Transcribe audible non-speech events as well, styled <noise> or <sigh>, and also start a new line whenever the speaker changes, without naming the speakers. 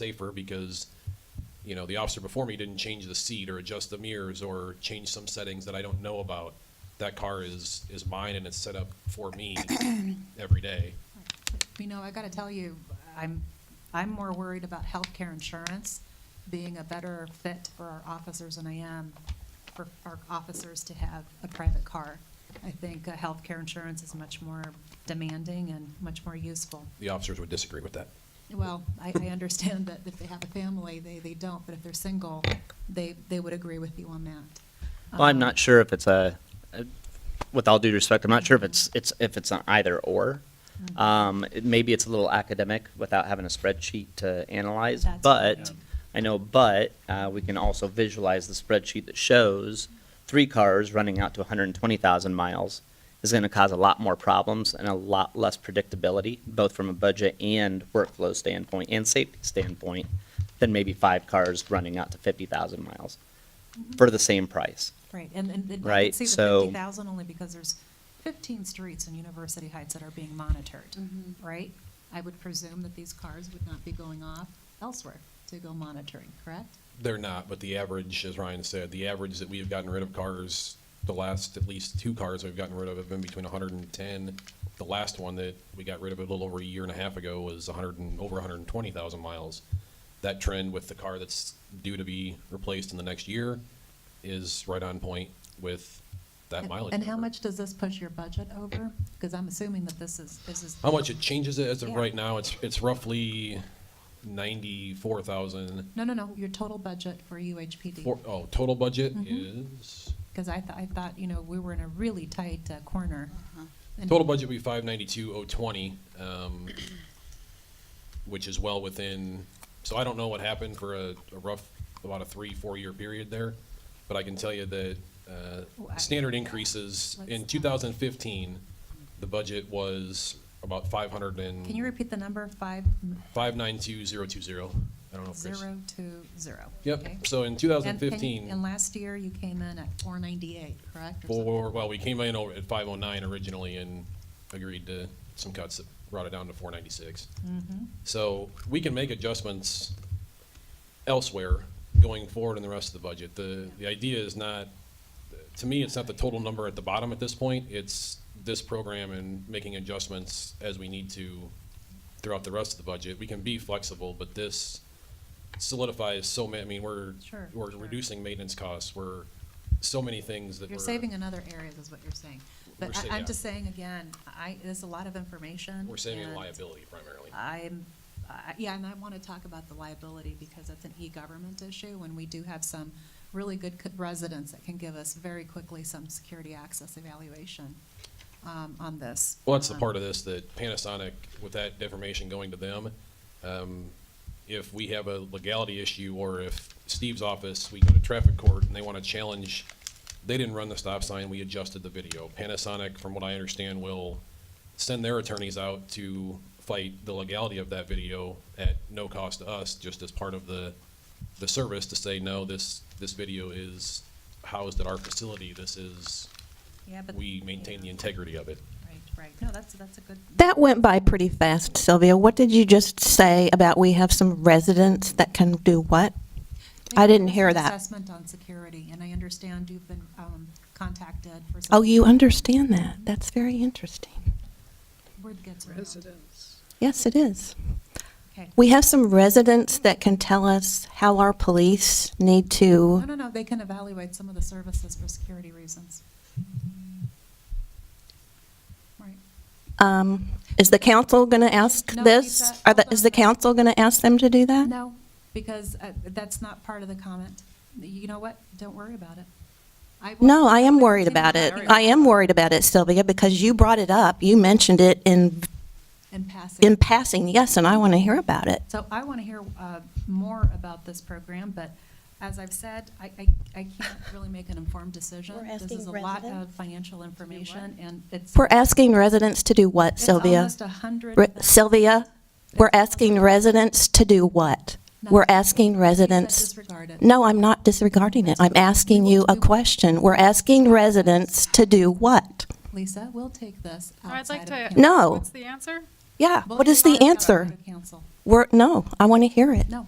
safer because, you know, the officer before me didn't change the seat or adjust the mirrors or change some settings that I don't know about. That car is, is mine and it's set up for me every day.
You know, I gotta tell you, I'm, I'm more worried about healthcare insurance being a better fit for our officers than I am for our officers to have a private car. I think uh, healthcare insurance is much more demanding and much more useful.
The officers would disagree with that.
Well, I, I understand that if they have a family, they, they don't, but if they're single, they, they would agree with you on that.
Well, I'm
Um,
not sure if it's a, a- with all due respect, I'm not sure if it's, it's, if it's an either or.
Mm-hmm.
Um, it- maybe it's a little academic without having a spreadsheet to analyze,
That's
but,
right.
I know, but, uh, we can also visualize the spreadsheet that shows three cars running out to hundred and twenty thousand miles is gonna cause a lot more problems and a lot less predictability, both from a budget and workflow standpoint and safety standpoint, than maybe five cars running out to fifty thousand miles
Mm-hmm.
for the same price.
Right, and, and and I can
Right,
see the
so-
fifty thousand only because there's fifteen streets in University Heights that are being monitored, right? I would presume that these cars would not be going off elsewhere to go monitoring, correct?
They're not, but the average, as Ryan said, the average that we have gotten rid of cars, the last at least two cars we've gotten rid of have been between hundred and ten. The last one that we got rid of a little over a year and a half ago was hundred and, over hundred and twenty thousand miles. That trend with the car that's due to be replaced in the next year is right on point with that
And-
mileage.
And how
number.
much does this push your budget over? Because I'm assuming that this is, this is.
How much it changes it as of
Yeah.
right now, it's, it's roughly ninety-four thousand.
No, no, no, your total budget for UHPD.
Four, oh, total budget
Mhm.
is?
Because I, th- I thought, you know, we were in a really tight uh, corner. And-
Uh-huh. Total budget would be five ninety-two oh twenty, um, which is well within, so I don't know what happened for a, a rough, about a three, four-year period there. But I can tell you that,
Well, I-
uh, standard increases, in
Let's-
two thousand fifteen, the budget was about five hundred and.
Can you repeat the number? Five m-
Five nine two zero two zero. I don't know if Chris.
zero two zero. okay?
Yep, so in two
And-
thousand
and-
fifteen.
And last year, you came in at four ninety-eight, correct? or something?
Four, well, we came in over at five oh nine originally and agreed to some cuts that brought it down to four ninety-six.
Mm-hmm.
So we can make adjustments elsewhere going forward in the rest of the budget. The, the idea is not, to me, it's not the total number at the bottom at this point. It's this program and making adjustments as we need to throughout the rest of the budget. We can be flexible, but this solidifies so many, I mean, we're,
Sure,
we're
sure.
reducing maintenance costs. We're, so many things that we're.
You're saving in other areas, is what you're saying.
We're
But
sa-
I- I'm
yeah.
just saying again, I, there's a lot of information.
We're saving in
and
liability primarily.
I'm, I- yeah, and I want to talk about the liability because that's an e-government issue and we do have some really good co- residents that can give us very quickly some security access evaluation um, on this.
Well, that's the part of this that Panasonic, with that information going to them, um, if we have a legality issue or if Steve's office, we go to traffic court and they want to challenge, they didn't run the stop sign, we adjusted the video. Panasonic, from what I understand, will send their attorneys out to fight the legality of that video at no cost to us, just as part of the, the service to say, no, this, this video is housed at our facility. This is,
Yeah, but-
we maintain the
Yeah,
integrity of it.
Right, right. No, that's, that's a good,
That went by pretty fast, Sylvia. What did you just say about we have some residents that can do what? I didn't hear that.
Assessment on security, and I understand you've been um, contacted for. some-
Oh, you understand that. That's very interesting.
Word gets around.
residents.
Yes, it is.
Okay.
We have some residents that can tell us how our police need
No,
to,
no, no, they can evaluate some of the services for security reasons. Right.
um, is the council going to ask
No,
this?
Lisa,
Are the,
hold
is
on.
the council going to ask them to do that?
No, because uh, that's not part of the comment. You know what? Don't worry about it. I will-
No, I am
will
worried
continue
about it.
to-
I am worried about it, Sylvia, because you brought it up. You mentioned it in,
In passing.
in passing, yes, and I want to hear about it.
So I want to hear uh, more about this program, but as I've said, I, I I
<laughs>
can't really make an informed decision.
We're
This is
asking
a lot
residents?
of financial information, and it's.
We're asking residents to do what, Sylvia?
It's almost a hundred.
Re- Sylvia, we're asking residents to do what? We're asking residents,
Disregard it.
no, I'm not disregarding it. I'm asking you a question. We're asking residents to do what?
Lisa, we'll take this
I'd
outside
like
of
to.
council.
No.
What's the answer?
Yeah,
We'll
what is
take
the
this
answer?
outside of council.
We're, no, I want to hear it.
No,